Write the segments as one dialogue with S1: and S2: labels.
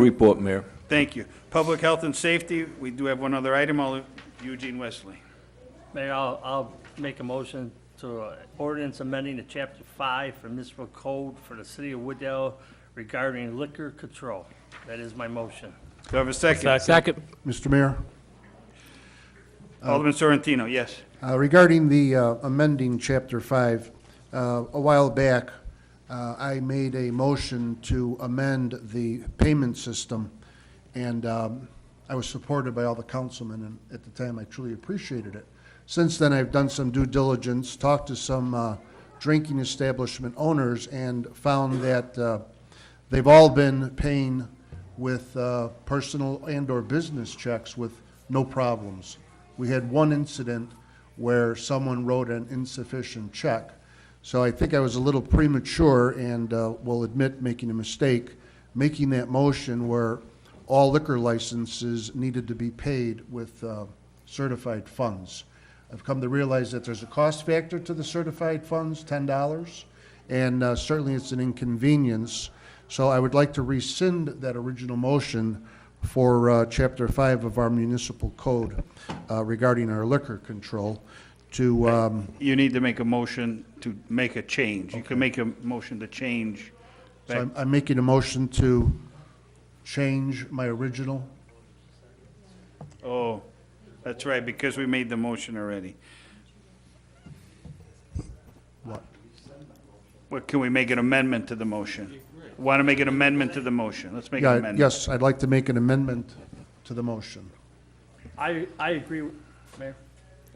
S1: Report, Mayor.
S2: Thank you. Public health and safety, we do have one other item, I'll- Eugene Wesley.
S3: Mayor, I'll, I'll make a motion to uh, ordinance amending the chapter five for municipal code for the city of Wooddale regarding liquor control. That is my motion.
S2: Do I have a second?
S4: Second.
S5: Mr. Mayor,
S2: Alderman Sorrentino, yes.
S5: uh, regarding the uh, amending Chapter 5, uh, a while back, uh, I made a motion to amend the payment system, and um, I was supported by all the councilmen, and at the time, I truly appreciated it. Since then, I've done some due diligence, talked to some uh, drinking establishment owners, and found that uh, they've all been paying with uh, personal and/or business checks with no problems. We had one incident where someone wrote an insufficient check. So I think I was a little premature and uh, will admit making a mistake, making that motion where all liquor licenses needed to be paid with uh, certified funds. I've come to realize that there's a cost factor to the certified funds, $10, and uh, certainly it's an inconvenience. So I would like to rescind that original motion for uh, Chapter 5 of our municipal code uh, regarding our liquor control to, um,
S2: You need to make a motion to make a change. You can make a motion to change.
S5: so I'm- I'm making a motion to change my original.
S2: Oh, that's right, because we made the motion already.
S5: What?
S2: What, can we make an amendment to the motion? Want to make an amendment to the motion? Let's make an
S5: Yeah,
S2: amendment.
S5: Yes, I'd like to make an amendment to the motion.
S3: I, I agree, with- Mayor.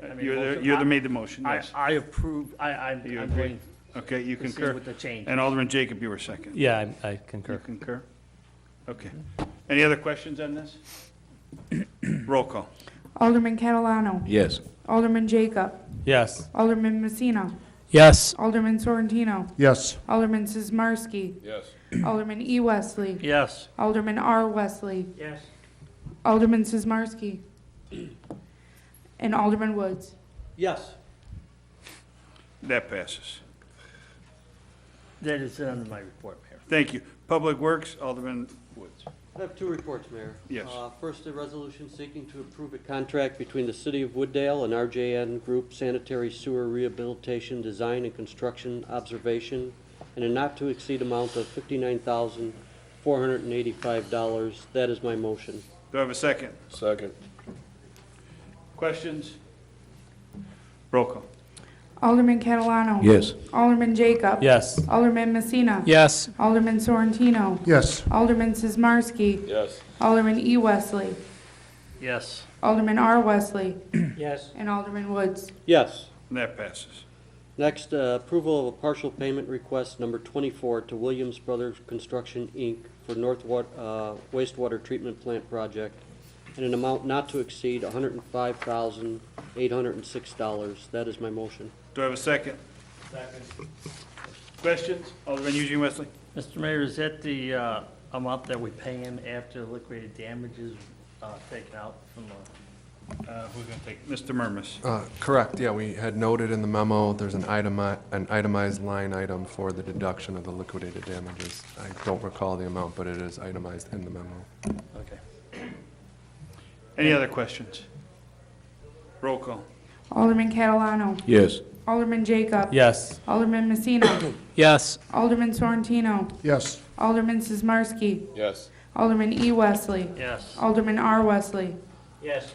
S3: I made a
S2: You're the,
S3: motion.
S2: you're the made the motion,
S3: I,
S2: yes.
S3: I approve, I, I'm,
S2: You
S3: I'm
S2: agree?
S3: going,
S2: Okay, you
S3: Proceed
S2: concur.
S3: with the change.
S2: And Alderman Jacob, you were second.
S4: Yeah, I- I
S2: You
S4: concur.
S2: concur? Okay. Any other questions on this? Roll call.
S6: Alderman Catalano.
S1: Yes.
S6: Alderman Jacob.
S4: Yes.
S6: Alderman Messina.
S4: Yes.
S6: Alderman Sorrentino.
S5: Yes,
S6: Alderman Sizmarsky. Yes. Alderman E. Wesley.
S3: yes.
S6: Alderman R. Wesley.
S3: Yes.
S6: Alderman Sizmarsky. And Alderman Woods.
S3: Yes.
S2: That passes.
S3: That is under my report, Mayor.
S2: Thank you. Public Works, Alderman Woods.
S7: I have two reports, Mayor.
S2: Yes.
S7: Uh, First, a resolution seeking to approve a contract between the City of Wooddale and RJN Group Sanitary Sewer Rehabilitation Design and Construction Observation in a not-to-exceed amount of $59,485. That is my motion.
S2: Do I have a second?
S8: Second.
S2: Questions? Roll call.
S6: Alderman Catalano.
S1: Yes.
S6: Alderman Jacob.
S4: Yes.
S6: Alderman Messina.
S4: Yes.
S6: Alderman Sorrentino.
S5: yes,
S6: Alderman Sizmarsky.
S8: Yes.
S6: Alderman E. Wesley.
S3: Yes.
S6: Alderman R. Wesley.
S7: Yes.
S6: And Alderman Woods.
S7: Yes.
S2: That passes.
S7: Next, uh, approval of a partial payment request number 24 to Williams Brothers Construction, Inc. for North Wa- uh, wastewater treatment plant project in an amount not to exceed $105,806. That is my motion.
S2: Do I have a second? Second. Questions? Alderman Eugene Wesley?
S3: Mr. Mayor, is that the, uh, amount that we pay him after liquidated damages, uh, taken out from the?
S2: Uh, who's gonna take? Mr. Murmas.
S9: Uh, Correct, yeah, we had noted in the memo, there's an itemi, an itemized line item for the deduction of the liquidated damages. I don't recall the amount, but it is itemized in the memo.
S3: Okay.
S2: Any other questions? Roll call.
S6: Alderman Catalano.
S1: Yes.
S6: Alderman Jacob.
S4: Yes.
S6: Alderman Messina.
S4: Yes.
S6: Alderman Sorrentino.
S5: yes,
S6: Alderman Sizmarsky.
S8: Yes.
S6: Alderman E. Wesley.
S3: Yes.
S6: Alderman R. Wesley.
S3: Yes.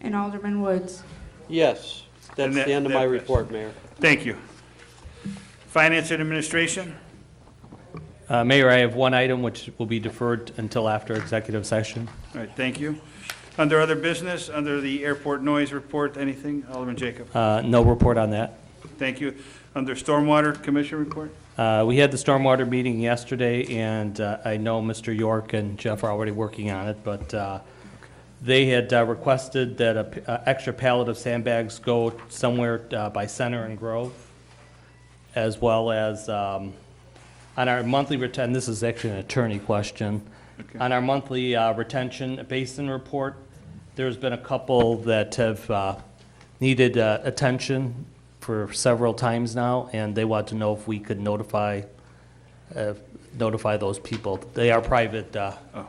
S6: And Alderman Woods.
S7: Yes, that's
S2: And that-
S7: the end of
S2: that-
S7: my report, Mayor.
S2: Thank you. Finance and Administration?
S4: Uh, Mayor, I have one item which will be deferred until after executive session.
S2: All right, thank you. Under other business, under the airport noise report, anything? Alderman Jacob?
S4: Uh, No report on that.
S2: Thank you. Under Stormwater Commission report?
S4: Uh, We had the stormwater meeting yesterday, and uh, I know Mr. York and Jeff are already working on it, but uh, they had uh, requested that an extra pallet of sandbags go somewhere uh, by Center and Grove, as well as um, on our monthly retention, this is actually an attorney question. On our monthly uh, retention basin report, there's been a couple that have uh, needed uh, attention for several times now, and they want to know if we could notify, uh, notify those people. They are private uh,
S2: Oh.